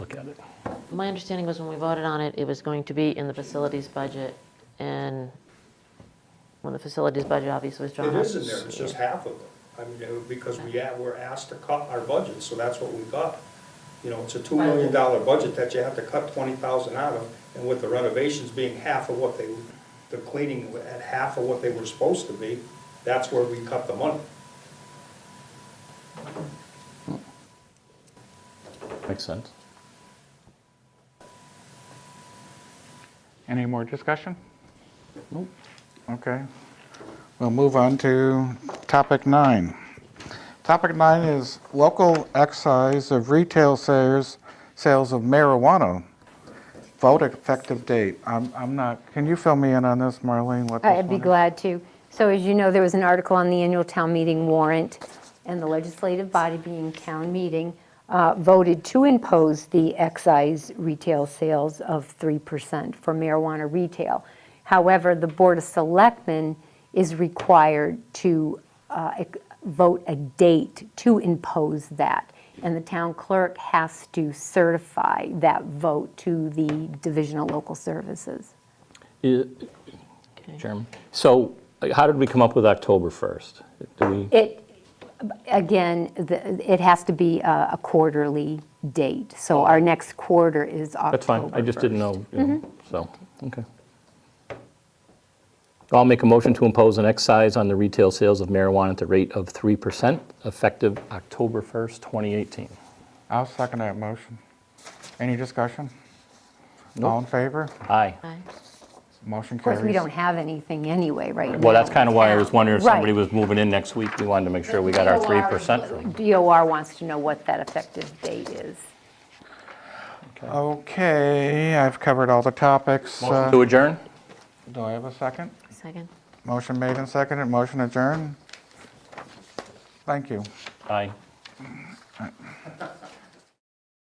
it. My understanding was when we voted on it, it was going to be in the facilities budget, and when the facilities budget obviously was drawn It up. is in there, it's just half of it. I mean, uh, because we, yeah, we're asked to cut our budget, so that's what we got. You know, it's a two million dollar budget that you have to cut twenty thousand out of, and with the renovations being half of what they, the cleaning at half of what they were supposed to be, that's where we cut the money. Makes sense. Any more discussion? Nope. Okay. We'll move on to topic nine. Topic nine is local excise of retail sales, sales of marijuana. Vote effective date. I'm, I'm not, can you fill me in on this, Marlene, what this I'd be one is? glad to. So as you know, there was an article on the annual town meeting warrant, and the legislative body, being town meeting, uh, voted to impose the excise retail sales of 3% for marijuana retail. However, the Board of Selectmen is required to uh, ex- vote a date to impose that, and the town clerk has to certify that vote to the Division of Local Services. Okay. Chairman, so uh, how did we come up with October 1st? Do we, It, again, the- it has to be a a quarterly date, so our next quarter is October that's fine, I just didn't 1st. know, you know, so, okay. I'll make a motion to impose an excise on the retail sales of marijuana at the rate of 3% effective October 1st, 2018. I'll second that motion. Any discussion? All in Nope. favor? Aye. Aye. Motion Of carries. course, we don't have anything anyway right now. Well, that's kind of why I was wondering if somebody Right. was moving in next week. We wanted to make sure we got our 3% from. DOR wants to know what that effective date is. Okay, I've covered all the topics. Uh, Motion to adjourn? Do I have a second? Second? Motion made and seconded, motion adjourned. Thank you. Aye.